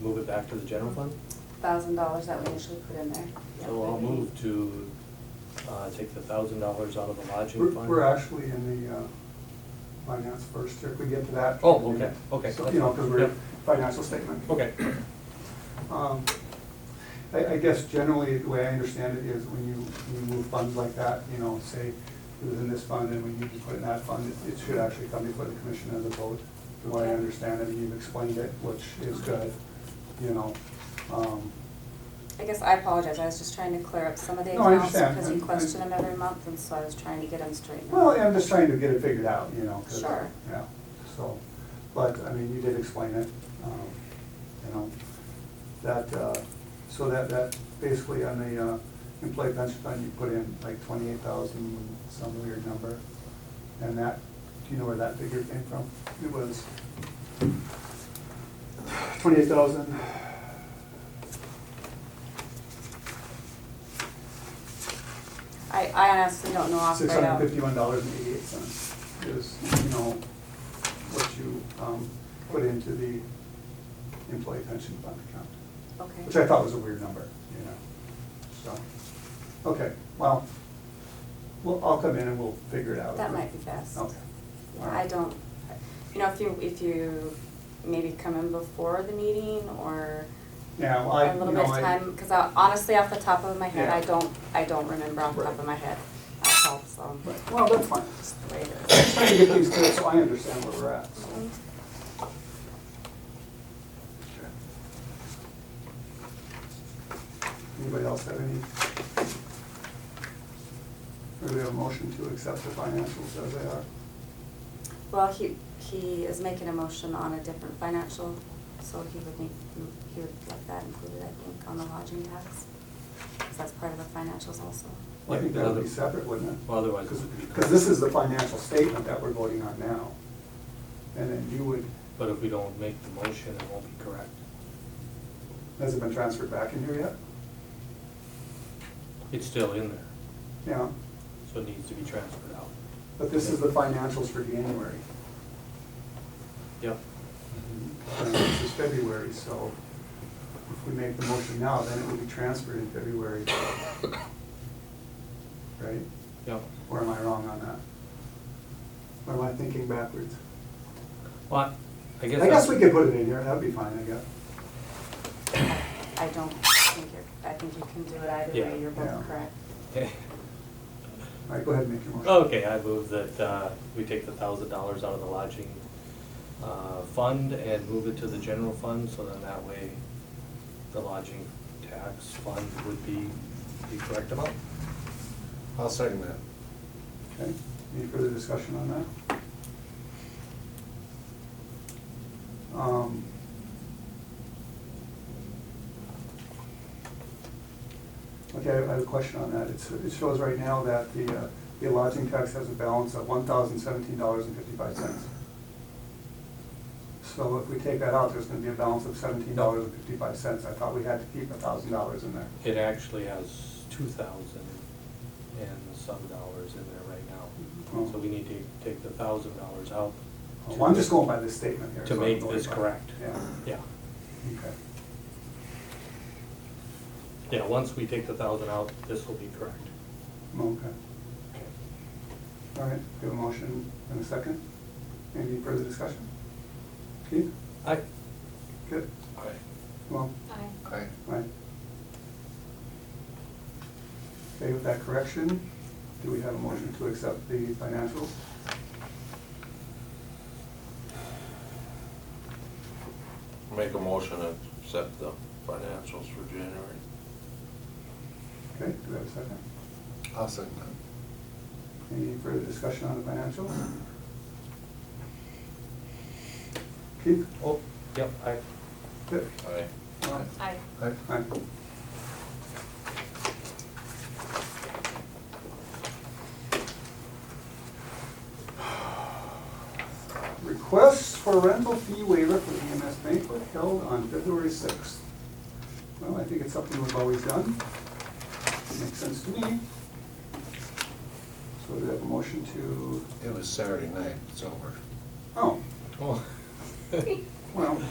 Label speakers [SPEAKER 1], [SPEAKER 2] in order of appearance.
[SPEAKER 1] move it back to the general fund?
[SPEAKER 2] thousand dollars that we initially put in there.
[SPEAKER 1] So I'll move to uh, take the thousand dollars out of the
[SPEAKER 3] We're,
[SPEAKER 1] lodging fund.
[SPEAKER 3] we're actually in the uh, finance first, if we get to that.
[SPEAKER 1] Oh, okay, okay.
[SPEAKER 3] So, you know, because we're
[SPEAKER 1] Yep.
[SPEAKER 3] financial statement.
[SPEAKER 1] Okay,
[SPEAKER 3] Um, I, I guess generally, the way I understand it is when you, when you move funds like that, you know, say it was in this fund and we need to put it in that fund, it- it should actually come before the commission as a vote. The way I understand it, and you've explained it, which is good, you know. Um,
[SPEAKER 2] I guess I apologize, I was just trying to clear up some of the
[SPEAKER 3] No, I
[SPEAKER 2] accounts
[SPEAKER 3] understand.
[SPEAKER 2] because you
[SPEAKER 3] And- and-
[SPEAKER 2] question them every month and so I was trying to get them straightened.
[SPEAKER 3] Well,
[SPEAKER 2] out.
[SPEAKER 3] I'm just trying to get it figured out, you know. 'cause-
[SPEAKER 2] Sure.
[SPEAKER 3] Yeah, so, but, I mean, you did explain it, um, you know, that, uh, so that, that basically on the uh, employee pension fund, you put in like twenty-eight thousand, some weird number. And that, do you know where that figure came from? It was twenty-eight thousand.
[SPEAKER 2] I, I honestly don't know off
[SPEAKER 3] Six
[SPEAKER 2] right
[SPEAKER 3] hundred and
[SPEAKER 2] now.
[SPEAKER 3] fifty-one dollars and eighty-eight cents is, you know, what you um, put into the employee pension fund account, which I
[SPEAKER 2] Okay,
[SPEAKER 3] thought was a weird number, you know, so. Okay, well, well, I'll come in and we'll figure it out.
[SPEAKER 2] that might be best.
[SPEAKER 3] Okay. all
[SPEAKER 2] I
[SPEAKER 3] right.
[SPEAKER 2] don't, you know, if you, if you maybe come in before the meeting or
[SPEAKER 3] Yeah, well, I,
[SPEAKER 2] a
[SPEAKER 3] you
[SPEAKER 2] little
[SPEAKER 3] know,
[SPEAKER 2] bit of
[SPEAKER 3] I,
[SPEAKER 2] time, because honestly, off the top of my head,
[SPEAKER 3] Yeah.
[SPEAKER 2] I don't, I don't remember off the top
[SPEAKER 3] Right.
[SPEAKER 2] of my head. That helps, um,
[SPEAKER 3] right, well, that's fine,
[SPEAKER 2] just the way it is.
[SPEAKER 3] I'm trying to get these good so I understand where we're at, so.
[SPEAKER 2] Mhm.
[SPEAKER 3] Okay. Anybody else have any? Or do we have a motion to accept the financials as they are?
[SPEAKER 2] Well, he, he is making a motion on a different financial, so he would need, he would like that included, I think, on the lodging tax. Because that's part of the financials also.
[SPEAKER 3] I think that would be
[SPEAKER 1] Yeah.
[SPEAKER 3] separate, wouldn't it?
[SPEAKER 1] Well, otherwise it
[SPEAKER 3] Because,
[SPEAKER 1] would be-
[SPEAKER 3] because this is the financial statement that we're voting on now. And then you would,
[SPEAKER 1] but if we don't make the motion, it won't be correct.
[SPEAKER 3] has it been transferred back in here yet?
[SPEAKER 1] It's still in there,
[SPEAKER 3] Yeah,
[SPEAKER 1] so it needs to be transferred out.
[SPEAKER 3] but this is the financials for January.
[SPEAKER 1] Yep,
[SPEAKER 3] And This is February, so if we make the motion now, then it will be transferred in February. Right?
[SPEAKER 1] yep.
[SPEAKER 3] Or am I wrong on that? Or am I thinking backwards?
[SPEAKER 1] Well, I guess.
[SPEAKER 3] I guess
[SPEAKER 1] that's-
[SPEAKER 3] we could put it in here, that'd be fine, I guess.
[SPEAKER 2] I don't think you're, I think you can do it either
[SPEAKER 1] Yeah.
[SPEAKER 2] way, you're
[SPEAKER 3] Yeah.
[SPEAKER 2] both correct.
[SPEAKER 3] All right, go ahead and make your motion.
[SPEAKER 1] Okay, I move that uh, we take the thousand dollars out of the lodging uh, fund and move it to the general fund, so then that way the lodging tax fund would be the correct amount.
[SPEAKER 4] I'll second that.
[SPEAKER 3] Okay, any further discussion on that? Um, Okay, I have a question on that. It's, it shows right now that the, uh, the lodging tax has a balance of one thousand seventeen dollars and fifty-five cents. So if we take that out, there's gonna be a balance of seventeen dollars and fifty-five cents. I thought we had to keep a thousand dollars in there.
[SPEAKER 1] It actually has two thousand and some dollars in there right now. So we need to take the thousand dollars out. to-
[SPEAKER 3] Oh. Well, I'm just going by this statement here.
[SPEAKER 1] To
[SPEAKER 3] so I'm
[SPEAKER 1] make
[SPEAKER 3] going
[SPEAKER 1] this
[SPEAKER 3] by-
[SPEAKER 1] correct.
[SPEAKER 3] Yeah.
[SPEAKER 1] Yeah,
[SPEAKER 3] Okay.
[SPEAKER 1] yeah, once we take the thousand out, this will be correct.
[SPEAKER 3] Okay. All right, we have a motion and a second. Any further discussion? Keith?
[SPEAKER 1] I,
[SPEAKER 3] Good. Well,
[SPEAKER 2] Aye.
[SPEAKER 4] Aye.
[SPEAKER 3] aye. Okay, with that correction, do we have a motion to accept the financials?
[SPEAKER 5] Make a motion to accept the financials for January.
[SPEAKER 3] Okay, do we have a second?
[SPEAKER 4] I'll second that.
[SPEAKER 3] Any further discussion on the financials? Keith?
[SPEAKER 1] oh, yep, I,
[SPEAKER 3] Good.
[SPEAKER 5] Aye.
[SPEAKER 3] Well,
[SPEAKER 2] Aye.
[SPEAKER 4] Aye.
[SPEAKER 3] Aye. Requests for rental fee waiver for the EMS banquet held on February sixth. Well, I think it's something we've always done. Makes sense to me. So do we have a motion to,
[SPEAKER 4] It was Saturday night, it's over.
[SPEAKER 3] oh,
[SPEAKER 1] oh,
[SPEAKER 3] well,